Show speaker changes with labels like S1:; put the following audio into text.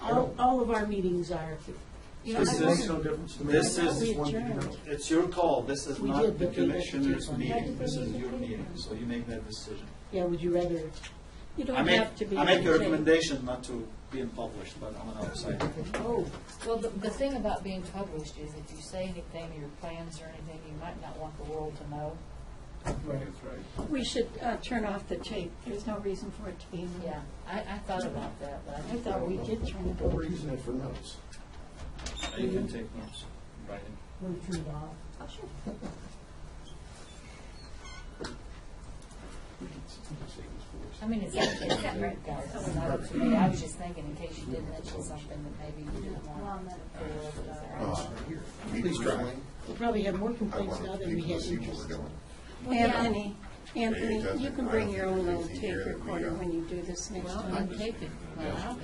S1: all of our meetings are. You know, I
S2: This
S3: It makes
S2: is-
S1: wasn't-
S3: no difference to me.
S2: This is,
S1: We
S3: One-
S1: adjourned.
S2: it's your call, this is
S1: We
S2: not
S1: did,
S2: the
S1: but we-
S2: commissioner's
S1: we-
S2: meeting, this is your meeting, so you make that decision.
S1: Yeah, would you rather, you
S2: I
S1: don't
S2: make,
S1: have to be.
S2: I make a
S1: okay.
S2: recommendation not to being published, but I'm an outsider.
S1: Oh,
S4: Well, the, the thing about being published is if you say anything, your plans or anything, you might not want the world to know.
S3: Right, that's right.
S5: We should uh, turn off the tape. There's no reason for it to be. on.
S4: Yeah, I, I thought about that, but I
S1: I
S4: think
S1: thought we did turn it
S3: But
S1: over,
S3: we're using it for notes.
S2: You can take notes, write it.
S1: we turned it off.
S3: We can s- save this for us.
S4: I mean, it's actually separate, guys. It's not up to me. I was just thinking, in case you did mention something that maybe you didn't want. the world to know.
S6: Please try.
S1: We probably have more
S6: I
S1: complaints
S6: want
S1: now
S6: to
S1: than we
S6: people
S1: had
S6: to see what we're
S1: interest.
S6: doing.
S5: Anthony,
S6: It
S5: Anthony, you
S6: doesn't-
S5: can
S6: I
S5: bring
S6: don't
S5: your
S6: think
S5: own
S6: there's
S5: little tape
S6: anything here that we,
S5: recorder
S6: uh,
S5: when you do this next
S4: Well,
S5: time.
S4: I'm taking, well, I don't